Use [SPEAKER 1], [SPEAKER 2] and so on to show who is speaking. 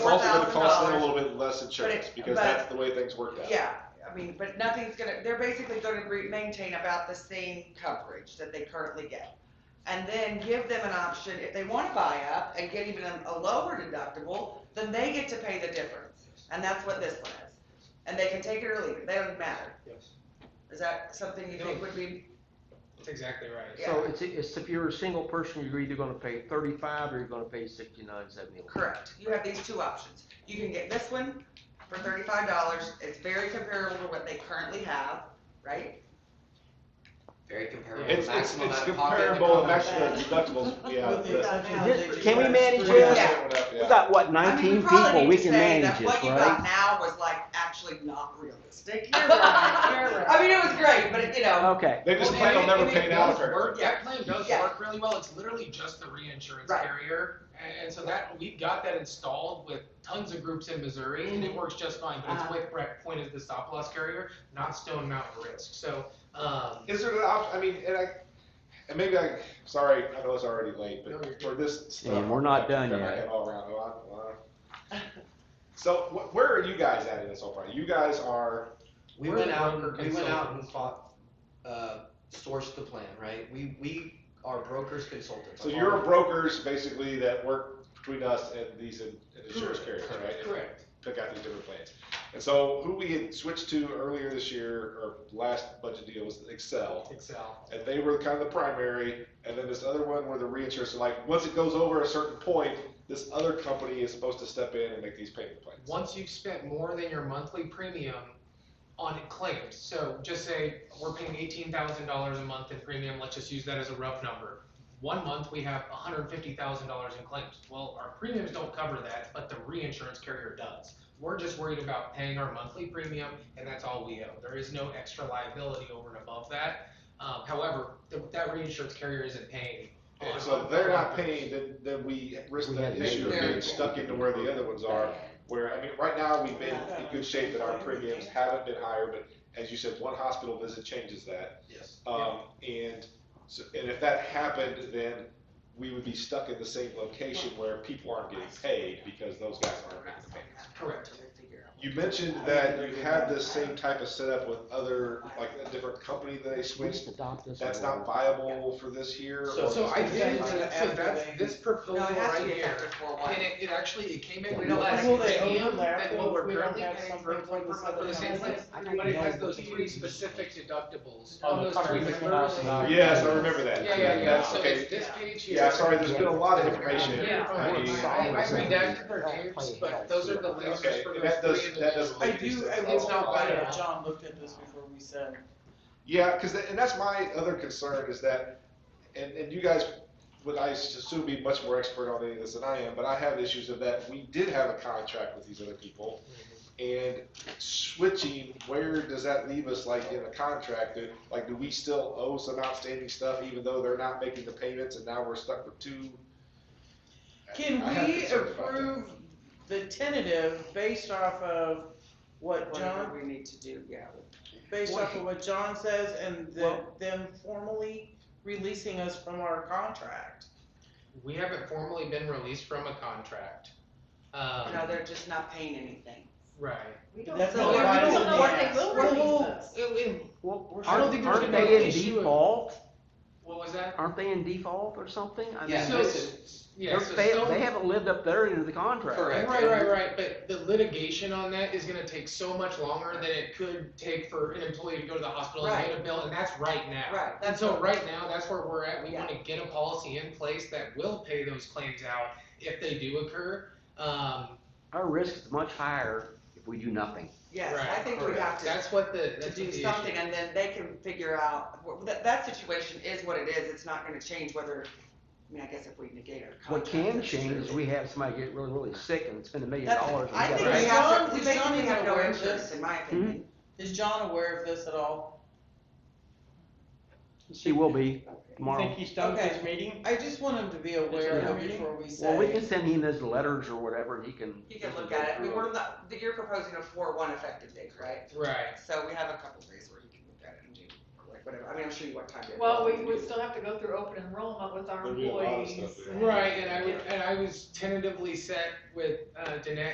[SPEAKER 1] also gonna cost them a
[SPEAKER 2] $4,000.
[SPEAKER 1] little bit less insurance,
[SPEAKER 2] it-
[SPEAKER 1] because
[SPEAKER 2] but-
[SPEAKER 1] that's the way things work out.
[SPEAKER 2] Yeah, I mean, but nothing's gonna, they're basically gonna re- maintain about the same coverage that they currently get. And then give them an option, if they wanna buy up and get even a- a lower deductible, then they get to pay the difference. And that's what this one is. And they can take it or leave it, they don't matter.
[SPEAKER 3] Yes,
[SPEAKER 2] Is that something you think would be,
[SPEAKER 3] that's exactly right.
[SPEAKER 2] yeah,
[SPEAKER 4] So it's, it's if you're a single person, you're either gonna pay thirty-five or you're gonna pay sixty-nine, seventy.
[SPEAKER 2] correct? You have these two options. You can get this one for thirty-five dollars, it's very comparable to what they currently have, right?
[SPEAKER 5] Very comparable.
[SPEAKER 3] Yeah.
[SPEAKER 1] It's, it's,
[SPEAKER 5] Maximum
[SPEAKER 1] it's
[SPEAKER 5] out of pocket
[SPEAKER 1] comparable,
[SPEAKER 5] to
[SPEAKER 1] maximum
[SPEAKER 5] cover that.
[SPEAKER 1] deductibles, yeah.
[SPEAKER 6] With the
[SPEAKER 1] the-
[SPEAKER 6] amount
[SPEAKER 4] Can we
[SPEAKER 6] that you
[SPEAKER 4] manage
[SPEAKER 6] asked for.
[SPEAKER 4] this?
[SPEAKER 2] Yeah.
[SPEAKER 4] We got, what,
[SPEAKER 2] I mean,
[SPEAKER 4] nineteen
[SPEAKER 2] probably
[SPEAKER 4] people,
[SPEAKER 2] need
[SPEAKER 4] we
[SPEAKER 2] to
[SPEAKER 4] can
[SPEAKER 2] say
[SPEAKER 4] manage
[SPEAKER 2] that What
[SPEAKER 4] this,
[SPEAKER 2] you got
[SPEAKER 4] right?
[SPEAKER 2] now was like actually not realistic.
[SPEAKER 6] You're right, you're right.
[SPEAKER 2] I mean, it was great, but it, you know,
[SPEAKER 4] Okay,
[SPEAKER 1] They just
[SPEAKER 3] Well,
[SPEAKER 1] plan
[SPEAKER 3] and
[SPEAKER 1] on
[SPEAKER 3] it-
[SPEAKER 1] never
[SPEAKER 3] and it
[SPEAKER 1] paying out
[SPEAKER 3] does
[SPEAKER 1] for it.
[SPEAKER 3] work. That claim does
[SPEAKER 2] Yeah.
[SPEAKER 3] work really well, it's literally just the reinsurance
[SPEAKER 2] Right.
[SPEAKER 3] carrier, and, and so that, we've got that installed with tons of groups in Missouri, and it works just fine, but it's
[SPEAKER 6] Uh-huh.
[SPEAKER 3] Wake Breck Point is the stop loss carrier, not Stone Mountain Risk, so, um,
[SPEAKER 1] Is there an option, I mean, and I, and maybe I, sorry, I know it's already late,
[SPEAKER 3] No, you're
[SPEAKER 1] but for this stuff.
[SPEAKER 4] And we're not
[SPEAKER 1] I've
[SPEAKER 4] done
[SPEAKER 1] got my
[SPEAKER 4] yet.
[SPEAKER 1] head all around, oh, a lot. So wh- where are you guys at in this whole project? You guys are,
[SPEAKER 5] We
[SPEAKER 3] We're
[SPEAKER 5] went
[SPEAKER 3] the
[SPEAKER 5] out,
[SPEAKER 3] broker
[SPEAKER 5] we went out and fought, uh, sourced the plan, right? We, we are brokers consultants.
[SPEAKER 1] so
[SPEAKER 5] I'm
[SPEAKER 1] you're
[SPEAKER 5] all-
[SPEAKER 1] brokers basically that work between us and these in- and insurance carriers,
[SPEAKER 3] Correct.
[SPEAKER 1] right? And
[SPEAKER 3] correct.
[SPEAKER 1] Pick out these different plans. And so who we had switched to earlier this year, or last budget deal was Excel.
[SPEAKER 3] Excel.
[SPEAKER 1] and they were kind of the primary, and then this other one where the reinsurers are like, once it goes over a certain point, this other company is supposed to step in and make these payment plans.
[SPEAKER 3] Once you've spent more than your monthly premium on claims, so just say we're paying eighteen thousand dollars a month in premium, let's just use that as a rough number. One month, we have hundred fifty thousand dollars in claims. Well, our premiums don't cover that, but the reinsurance carrier does. We're just worried about paying our monthly premium, and that's all we owe. There is no extra liability over and above that. Um, however, the, that reinsurance carrier isn't paying.
[SPEAKER 1] And
[SPEAKER 3] on-
[SPEAKER 1] so if they're not paying, then, then we risk
[SPEAKER 4] We
[SPEAKER 1] that
[SPEAKER 4] had
[SPEAKER 1] issue of
[SPEAKER 4] negative
[SPEAKER 1] being
[SPEAKER 4] rates.
[SPEAKER 1] stuck into where the other ones are, where, I mean, right now, we've been in good shape that our premiums haven't been higher, but as you said, one hospital visit changes that.
[SPEAKER 3] Yes.
[SPEAKER 1] Um, and so, and if that happened, then we would be stuck in the same location where people aren't getting paid because those guys aren't making the payments.
[SPEAKER 3] Correct.
[SPEAKER 1] You mentioned that you had this same type of setup with other, like a different company that they
[SPEAKER 4] we just
[SPEAKER 1] switched.
[SPEAKER 4] adopt this.
[SPEAKER 1] That's
[SPEAKER 4] one.
[SPEAKER 1] not viable for this year?
[SPEAKER 3] So,
[SPEAKER 1] or
[SPEAKER 3] so I
[SPEAKER 1] just-
[SPEAKER 3] did,
[SPEAKER 6] Yeah.
[SPEAKER 3] so that's, this proposal
[SPEAKER 2] no, it has to
[SPEAKER 3] right
[SPEAKER 2] be
[SPEAKER 3] here.
[SPEAKER 2] effective for a while.
[SPEAKER 3] And it, it actually, it came in
[SPEAKER 4] Will
[SPEAKER 3] with less
[SPEAKER 6] they
[SPEAKER 3] premium
[SPEAKER 6] open their
[SPEAKER 3] than what we're
[SPEAKER 6] bill if we don't
[SPEAKER 3] currently
[SPEAKER 6] have
[SPEAKER 3] paying
[SPEAKER 6] something
[SPEAKER 3] for,
[SPEAKER 6] for
[SPEAKER 3] for,
[SPEAKER 6] the
[SPEAKER 3] for the same
[SPEAKER 6] same
[SPEAKER 3] place.
[SPEAKER 4] I
[SPEAKER 3] But it
[SPEAKER 4] got
[SPEAKER 3] has
[SPEAKER 4] one
[SPEAKER 3] those
[SPEAKER 4] thing.
[SPEAKER 3] three specific deductibles
[SPEAKER 4] Oh,
[SPEAKER 3] on those
[SPEAKER 4] the
[SPEAKER 3] three
[SPEAKER 4] coverage
[SPEAKER 3] members.
[SPEAKER 4] is not-
[SPEAKER 1] Yes, I remember
[SPEAKER 3] Yeah,
[SPEAKER 1] that.
[SPEAKER 3] yeah, yeah,
[SPEAKER 1] That's
[SPEAKER 3] so
[SPEAKER 1] okay.
[SPEAKER 3] it's this page here.
[SPEAKER 1] Yeah, sorry, there's been a lot of information.
[SPEAKER 3] Yeah.
[SPEAKER 1] I mean,
[SPEAKER 3] I, I redacted their names, but those are the
[SPEAKER 1] Okay,
[SPEAKER 3] lasers for
[SPEAKER 1] and that
[SPEAKER 3] those
[SPEAKER 1] does,
[SPEAKER 3] three
[SPEAKER 1] that does.
[SPEAKER 3] individuals.
[SPEAKER 6] I do, I
[SPEAKER 3] It's
[SPEAKER 6] was
[SPEAKER 3] not
[SPEAKER 6] glad
[SPEAKER 3] bad.
[SPEAKER 6] that John looked at this before we said.
[SPEAKER 1] Yeah, because and that's my other concern is that, and, and you guys would I assume be much more expert on any of this than I am, but I have issues of that we did have a contract with these other people, and switching where does that leave us like in a contract? Do- Like, do we still owe some outstanding stuff even though they're not making the payments and now we're stuck with two?
[SPEAKER 6] Can
[SPEAKER 1] I have
[SPEAKER 6] we
[SPEAKER 1] concerns about that.
[SPEAKER 6] approve the tentative based off of what
[SPEAKER 2] Whatever
[SPEAKER 6] John,
[SPEAKER 2] we need to do, yeah.
[SPEAKER 6] based off of what John says and the,
[SPEAKER 4] Well-
[SPEAKER 6] them formally releasing us from our contract?
[SPEAKER 3] We haven't formally been released from a contract. Um,
[SPEAKER 2] No, they're just not paying anything.
[SPEAKER 3] right.
[SPEAKER 7] We don't,
[SPEAKER 6] That's
[SPEAKER 2] So
[SPEAKER 6] not
[SPEAKER 2] we
[SPEAKER 6] why
[SPEAKER 2] don't
[SPEAKER 6] it's
[SPEAKER 2] know
[SPEAKER 6] in
[SPEAKER 2] what
[SPEAKER 6] the
[SPEAKER 2] they
[SPEAKER 6] act.
[SPEAKER 2] will
[SPEAKER 6] We're
[SPEAKER 2] release
[SPEAKER 6] whole-
[SPEAKER 2] us.
[SPEAKER 4] Well,
[SPEAKER 3] I don't think there's
[SPEAKER 4] aren't, aren't
[SPEAKER 3] gonna be
[SPEAKER 4] they
[SPEAKER 3] an
[SPEAKER 4] in
[SPEAKER 3] issue of-
[SPEAKER 4] default?
[SPEAKER 3] What was that?
[SPEAKER 4] Aren't they in default or something? I
[SPEAKER 5] Yeah,
[SPEAKER 4] mean,
[SPEAKER 3] So,
[SPEAKER 5] listen,
[SPEAKER 3] yeah,
[SPEAKER 4] they're
[SPEAKER 3] so
[SPEAKER 4] fa-
[SPEAKER 3] Stone-
[SPEAKER 4] They haven't lived up their end of the contract.
[SPEAKER 5] Correct.
[SPEAKER 3] Right, right, right, but the litigation on that is gonna take so much longer than it could take for an employee to go to the hospital and get a bill, and that's right now.
[SPEAKER 2] Right,
[SPEAKER 3] And
[SPEAKER 2] that's
[SPEAKER 3] so right now, that's where we're at, we wanna get a policy in place that will pay those claims out if they do occur. Um,
[SPEAKER 4] Our risk is much higher if we do nothing.
[SPEAKER 2] Yes, I
[SPEAKER 3] Right,
[SPEAKER 2] think we have to.
[SPEAKER 3] that's what the,
[SPEAKER 2] to
[SPEAKER 3] that's
[SPEAKER 2] do
[SPEAKER 3] what the issue.
[SPEAKER 2] something, and then they can figure out, wh- that, that situation is what it is, it's not gonna change whether, I mean, I guess if we negate our
[SPEAKER 4] What
[SPEAKER 2] contract.
[SPEAKER 4] can
[SPEAKER 2] that's
[SPEAKER 4] change
[SPEAKER 2] true.
[SPEAKER 4] is we have somebody get really, really sick and spend a million
[SPEAKER 6] That's-
[SPEAKER 4] dollars. on
[SPEAKER 2] I think
[SPEAKER 4] that.
[SPEAKER 2] we
[SPEAKER 3] Right.
[SPEAKER 2] have, to-
[SPEAKER 6] John-
[SPEAKER 2] we
[SPEAKER 6] is John
[SPEAKER 2] basically
[SPEAKER 6] even
[SPEAKER 2] have no
[SPEAKER 6] aware of
[SPEAKER 2] insurance,
[SPEAKER 6] this?
[SPEAKER 2] in my
[SPEAKER 7] Mm-hmm.
[SPEAKER 2] opinion.
[SPEAKER 6] Is John aware of this at all?
[SPEAKER 4] She will be
[SPEAKER 8] You
[SPEAKER 4] tomorrow.
[SPEAKER 8] think he's done with his meeting?
[SPEAKER 6] I just want him to be aware
[SPEAKER 4] Yeah.
[SPEAKER 6] of it before we say.
[SPEAKER 4] Well, we can send him his letters or whatever, and he can.
[SPEAKER 2] You can look at it, we were not, that you're proposing a four one effective date, right?
[SPEAKER 3] Right,
[SPEAKER 2] So we have a couple days where you can look at it and do, or like, whatever, I mean, I'm sure you want time to.
[SPEAKER 7] well, we would still have to go through open enrollment with our
[SPEAKER 1] There'd be a lot of
[SPEAKER 7] employees.
[SPEAKER 1] stuff there.
[SPEAKER 3] right, and I, would- and I was tentatively set with, uh, Danette